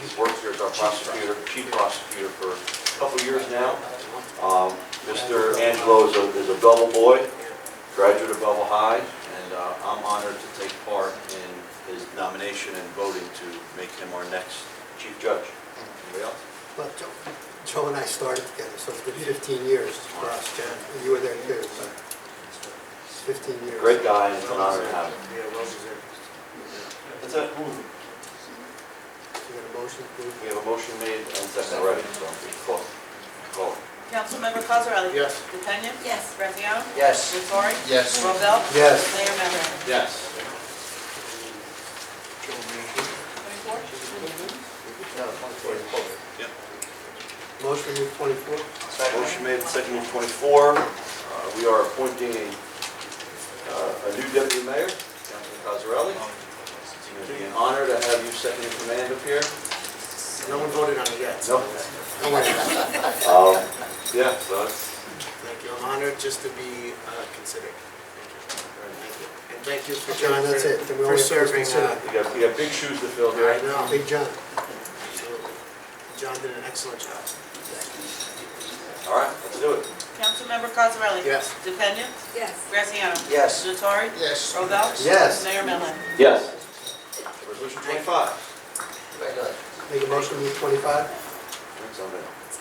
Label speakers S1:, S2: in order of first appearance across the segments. S1: He's worked here as our prosecutor, chief prosecutor for a couple years now. Um, Mr. Angelo is a, is a Belleville boy, graduate of Belleville High, and uh, I'm honored to take part in his nomination and voting to make him our next chief judge. Anybody else?
S2: Well, Joe- Joe and I started together, so it's been 15 years for us, John. You were there too, but it's 15 years.
S1: Great guy, and it's an honor to have him.
S3: Yeah, well deserved.
S1: That's it.
S2: You got a motion, please?
S1: We have a motion made and second already, so we can call, call.
S4: Councilmember Cosarelli?
S3: Yes.
S4: DePena?
S5: Yes.
S4: Graziano?
S3: Yes.
S4: Natori?
S3: Yes.
S4: Robel?
S2: Yes.
S4: Mayor Melvin?
S1: Yes.
S4: Twenty-four?
S2: Motion move 24?
S1: Motion made, second and 24. Uh, We are appointing a uh, a new deputy mayor, Councilman Cosarelli. It's going to be an honor to have you second in command up here.
S3: No one voted on it yet.
S1: No.
S3: Don't worry about it.
S1: Um, Yeah, so it's,
S3: Thank you. I'm honored just to be uh, considered. Thank you. And thank you for John
S2: John, that's it. Then we
S3: for
S2: only have to
S3: serving. uh,
S1: you got, you got big shoes to fill here.
S3: I know.
S2: Big John?
S3: Absolutely. uh, John did an excellent job.
S1: All right, let's do it.
S4: Councilmember Cosarelli?
S3: Yes.
S4: DePena?
S5: Yes.
S4: Graziano?
S3: Yes.
S4: Natori?
S3: Yes.
S4: Robel?
S2: Yes.
S4: Mayor Melvin?
S1: Yes. Resolution 25.
S2: Make a motion move 25?
S1: Thanks, I'm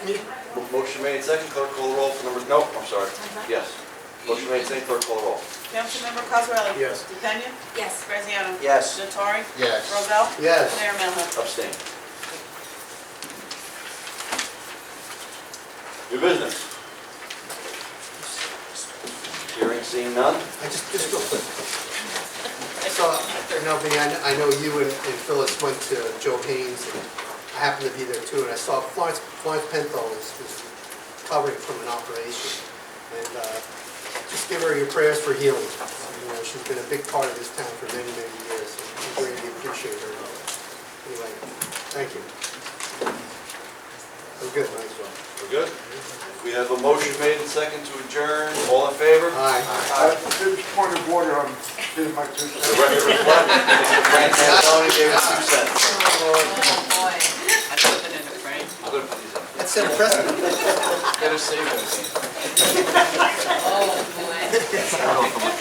S1: in. Mo- Motion made, second, clerk call the roll for number, no, I'm sorry. Yes. Motion made, second, clerk call the roll.
S4: Councilmember Cosarelli?
S3: Yes.
S4: DePena?
S5: Yes.
S4: Graziano?
S3: Yes.
S4: Natori?
S3: Yes.
S4: Robel?
S2: Yes.
S4: Mayor Melvin?
S1: Abstain. New business. Hearing, seeing none?
S2: I just, just real quick. So, no, but I kn- I know you and and Phyllis went to Joe Haynes, and I happened to be there too, and I saw Florence, Florence Penthal is is recovering from an operation. And uh, just give her your prayers for healing. You know, she's been a big part of this town for many, many years, and we greatly appreciate her. Anyway, thank you. We're good, might as well.
S1: We're good? We have a motion made and second to adjourn. All in favor?
S2: Aye.
S6: Uh, There's point of order on, here's my two
S1: The
S6: cents.
S1: record reflects that Frank Antoni gave us two cents.
S4: Oh, boy. I put it in the frame.
S1: I'm gonna put these up.
S2: That's set a precedent.
S4: Oh, boy. Oh,
S1: I don't know if I'm gonna